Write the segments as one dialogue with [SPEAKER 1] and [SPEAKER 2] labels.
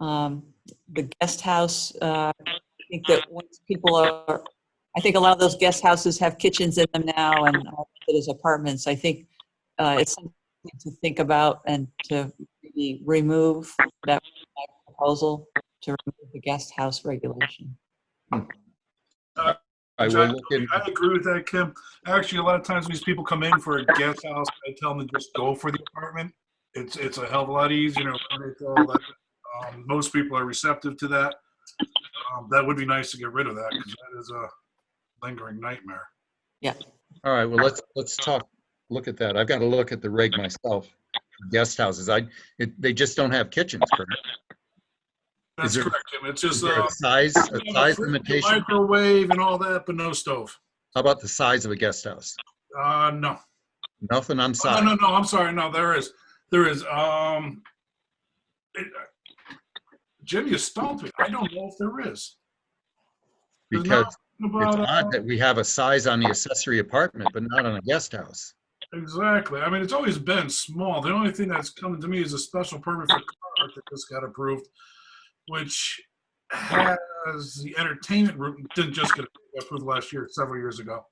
[SPEAKER 1] um, the guest house, uh, I think that once people are, I think a lot of those guest houses have kitchens in them now and all it is apartments. I think uh, it's something to think about and to maybe remove that proposal to remove the guest house regulation.
[SPEAKER 2] I
[SPEAKER 3] Which
[SPEAKER 2] will look in,
[SPEAKER 3] I agree with that, Kim. Actually, a lot of times these people come in for a guest house, I tell them to just go for the apartment. It's, it's a hell of a lot easier. and it's all that. Um, Most people are receptive to that. Um, That would be nice to get rid of that because that is a lingering nightmare.
[SPEAKER 2] all right, well, let's, let's talk, look at that. I've got to look at the reg myself, guest houses. I, it- they just don't have kitchens, correct?
[SPEAKER 3] That's
[SPEAKER 2] there-
[SPEAKER 3] correct, Kim. It's
[SPEAKER 2] Is
[SPEAKER 3] just
[SPEAKER 2] there
[SPEAKER 3] uh,
[SPEAKER 2] a Size, a size limitation.
[SPEAKER 3] microwave and all that, but no stove.
[SPEAKER 2] How about the size of a guest house?
[SPEAKER 3] Uh, no.
[SPEAKER 2] Nothing on
[SPEAKER 3] Oh, No, no,
[SPEAKER 2] size.
[SPEAKER 3] no, I'm sorry. No, there is, there is, um, it- Jim, you stumped me. I don't know if there is. There's
[SPEAKER 2] Because
[SPEAKER 3] nothing
[SPEAKER 2] it's
[SPEAKER 3] about, uh,
[SPEAKER 2] odd that we have a size on the accessory apartment, but not on a guest house.
[SPEAKER 3] Exactly. I mean, it's always been small. The only thing that's coming to me is a special permit for car that just got approved, which has the entertainment room, didn't just get approved last year, several years ago.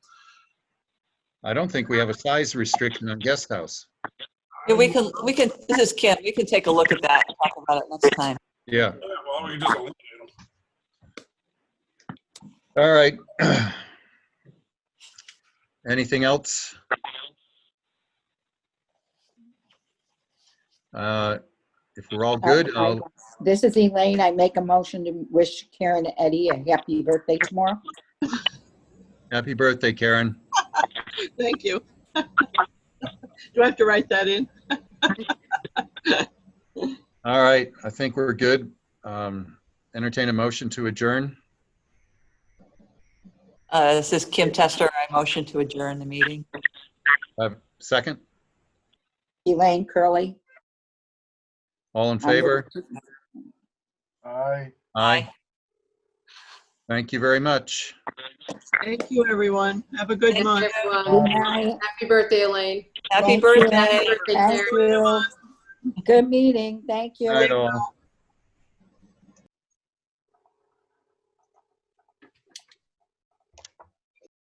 [SPEAKER 2] I don't think we have a size restriction on guest house.
[SPEAKER 1] Yeah, we can, we can, this is Kim, we can take a look at that and talk about it next time.
[SPEAKER 2] Yeah,
[SPEAKER 3] Yeah, well, we just eliminate them.
[SPEAKER 2] all right. Anything else? Uh, If we're all good, um, I'll,
[SPEAKER 4] This is Elaine. I make a motion to wish Karen Eddy a happy birthday tomorrow.
[SPEAKER 2] happy birthday, Karen.
[SPEAKER 5] Thank you. Do I have to write that in?
[SPEAKER 2] All right, I think we're good. Um, Entertain a motion to adjourn.
[SPEAKER 1] Uh, This is Kim Tester, I motion to adjourn the meeting.
[SPEAKER 2] Uh, Second,
[SPEAKER 4] Elaine Curley.
[SPEAKER 2] all in favor?
[SPEAKER 3] Aye.
[SPEAKER 2] Aye. Thank you very much.
[SPEAKER 5] Thank you, everyone. Have a good
[SPEAKER 6] Thanks,
[SPEAKER 5] month.
[SPEAKER 4] Good
[SPEAKER 6] everyone.
[SPEAKER 4] night.
[SPEAKER 6] Happy birthday, Elaine.
[SPEAKER 1] Happy
[SPEAKER 4] Thank you.
[SPEAKER 1] birthday.
[SPEAKER 6] Happy birthday,
[SPEAKER 4] Thank
[SPEAKER 6] Karen.
[SPEAKER 4] you. Good meeting. Thank you.
[SPEAKER 2] Night all.